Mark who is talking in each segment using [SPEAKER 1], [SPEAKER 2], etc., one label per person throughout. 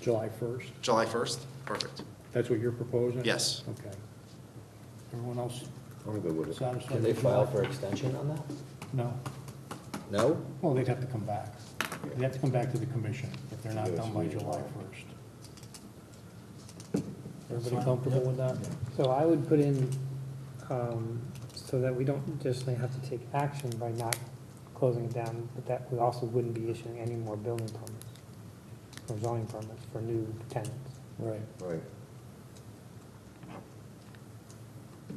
[SPEAKER 1] July 1st?
[SPEAKER 2] July 1st? Perfect.
[SPEAKER 1] That's what you're proposing?
[SPEAKER 2] Yes.
[SPEAKER 1] Okay. Everyone else
[SPEAKER 3] I'm good with it.
[SPEAKER 1] satisfied?
[SPEAKER 4] Can they
[SPEAKER 1] with
[SPEAKER 4] file
[SPEAKER 1] July?
[SPEAKER 4] for extension on that?
[SPEAKER 1] No.
[SPEAKER 4] No?
[SPEAKER 1] Well, they'd have to come back. They'd have to come back to the commission if they're not
[SPEAKER 3] Yeah,
[SPEAKER 1] done
[SPEAKER 3] it's
[SPEAKER 1] by
[SPEAKER 3] really
[SPEAKER 1] July
[SPEAKER 3] July.
[SPEAKER 1] 1st. Everybody comfortable with that?
[SPEAKER 5] So I would put in, um, so that we don't just have to take action by not closing it down, but that we also wouldn't be issuing any more building permits or zoning permits for new tenants.
[SPEAKER 1] Right.
[SPEAKER 3] Right.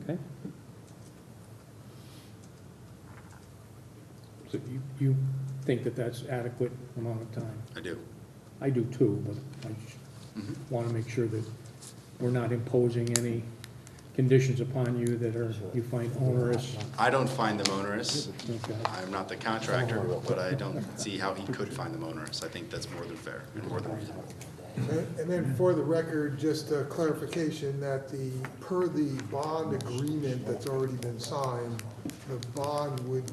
[SPEAKER 1] Okay. So you, you think that that's adequate amount of time?
[SPEAKER 2] I do.
[SPEAKER 1] I do too, but I just want to make sure that we're not imposing any conditions upon you that are, you find onerous.
[SPEAKER 2] I don't find them onerous.
[SPEAKER 1] Okay.
[SPEAKER 2] I'm not the contractor, but I don't see how he could find them onerous. I think that's more than fair and more than reasonable.
[SPEAKER 6] And and then for the record, just a clarification that the, per the bond agreement that's already been signed, the bond would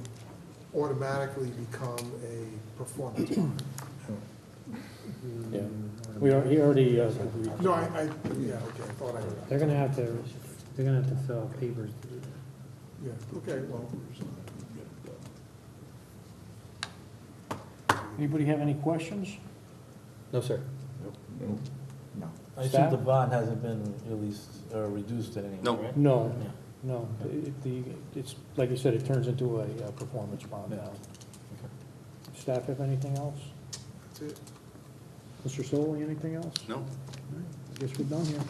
[SPEAKER 6] automatically become a performance bond.
[SPEAKER 1] Yeah. We are, he already, uh, agreed.
[SPEAKER 6] No, I, I, yeah, okay, I thought I heard that.
[SPEAKER 5] They're gonna have to, they're gonna have to fill out papers to do that.
[SPEAKER 6] Yeah, okay, well,
[SPEAKER 1] anybody have any questions?
[SPEAKER 4] No, sir.
[SPEAKER 7] I assume
[SPEAKER 1] Staff?
[SPEAKER 7] the bond hasn't been released or reduced at any
[SPEAKER 2] No.
[SPEAKER 7] point, right?
[SPEAKER 1] No,
[SPEAKER 7] Yeah.
[SPEAKER 1] no, It- the, it's, like you said, it turns into a uh, performance bond now. Staff have anything else?
[SPEAKER 6] that's it.
[SPEAKER 1] Mr. Solly, anything else?
[SPEAKER 2] No?
[SPEAKER 1] Guess we're done here.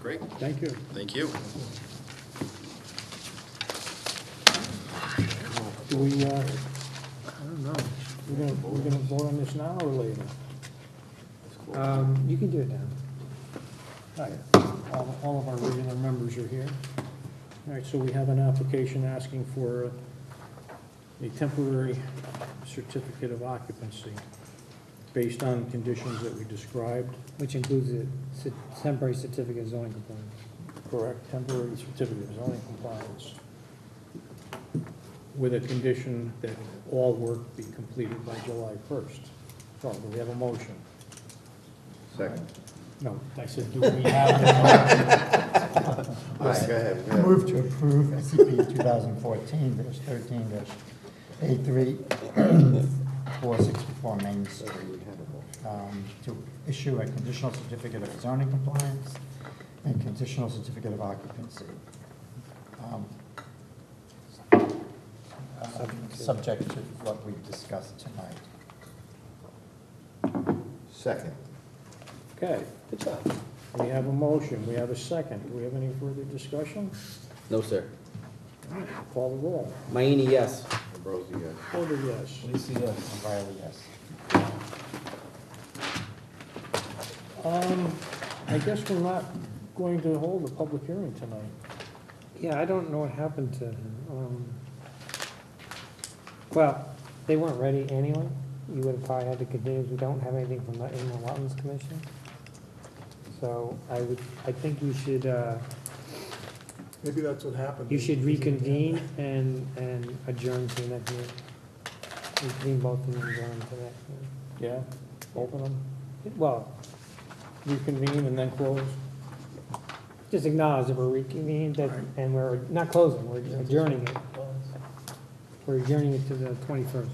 [SPEAKER 2] Great.
[SPEAKER 1] Thank you.
[SPEAKER 2] Thank you.
[SPEAKER 1] Do we, uh, I don't know, we're gonna, we're gonna vote on this now or later?
[SPEAKER 5] Um, you can do it now.
[SPEAKER 1] All right, all, all of our regular members are here. All right, so we have an application asking for a temporary certificate of occupancy based on conditions that we described.
[SPEAKER 5] Which includes a cer- temporary certificate of zoning compliance.
[SPEAKER 1] Correct. Temporary certificate of zoning compliance. With a condition that all work be completed by July first. So do we have a motion?
[SPEAKER 3] Second.
[SPEAKER 1] No, I said, do we have
[SPEAKER 3] All right, go ahead. go ahead.
[SPEAKER 8] Move to approve SCP 2014-13-83, 464 Main Street, um, to issue a conditional certificate of zoning compliance and conditional certificate of occupancy. Um, uh, Subject to what we discussed tonight.
[SPEAKER 3] Second.
[SPEAKER 1] a, okay,
[SPEAKER 4] Good job.
[SPEAKER 1] we have a motion, we have a second, do we have any further discussion?
[SPEAKER 4] No, sir.
[SPEAKER 1] Call the roll.
[SPEAKER 4] Mayini, yes.
[SPEAKER 3] Ambrosi, yes.
[SPEAKER 1] Porter, yes.
[SPEAKER 7] Lisa, yes.
[SPEAKER 8] O'Reilly, yes.
[SPEAKER 1] Um, I guess we're not going to hold a public hearing tonight.
[SPEAKER 5] Yeah, I don't know what happened to him. Um, Well, they weren't ready anyway. You would have probably had to continue, we don't have anything from the Inland Wetlands Commission. So I would, I think you should, uh,
[SPEAKER 6] Maybe that's what happened.
[SPEAKER 5] you should reconvene and, and adjourn to the next meeting. Reconvene both and adjourn to the next meeting.
[SPEAKER 1] Yeah, open them,
[SPEAKER 5] Well,
[SPEAKER 1] reconvene and then close.
[SPEAKER 5] just acknowledge that we're reconvened that- and we're not closing, we're adjourning it. We're adjourning it to the twenty-first.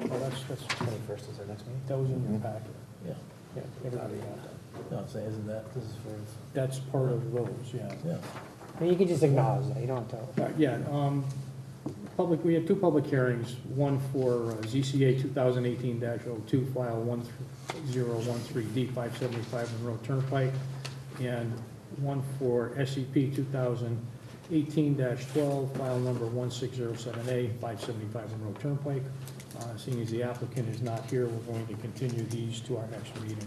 [SPEAKER 1] Well, that's, that's,
[SPEAKER 4] Twenty-first is our next meeting? Mm-hmm.
[SPEAKER 1] that was in your packet.
[SPEAKER 7] Yeah,
[SPEAKER 1] Yeah, everybody got that.
[SPEAKER 7] no, I'm saying, isn't that, this is for,
[SPEAKER 1] That's part of those, yeah.
[SPEAKER 7] yeah.
[SPEAKER 5] And you can just acknowledge that, you don't have to.
[SPEAKER 1] Uh, Yeah, um, public, we had two public hearings, one for uh, ZCA 2018-02, file 1013D 575 Monroe Turnpike, and one for E SCP 2018-12, file number 1607A 575 Monroe Turnpike. Uh, Seeing as the applicant is not here, we're going to continue these to our next meeting.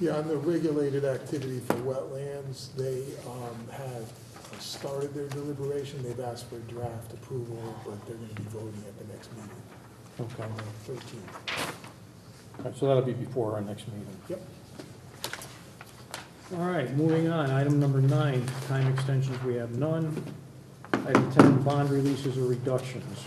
[SPEAKER 6] Yeah, on the regulated activity for wetlands, they um, have started their deliberation. They've asked for draft approval, but they're going to be voting at the next meeting,
[SPEAKER 1] Okay.
[SPEAKER 6] on the 13th.
[SPEAKER 1] So that'll be before our next meeting.
[SPEAKER 6] Yep.
[SPEAKER 1] All right, moving on, item number nine, time extensions, we have none. Item ten, bond releases or reductions.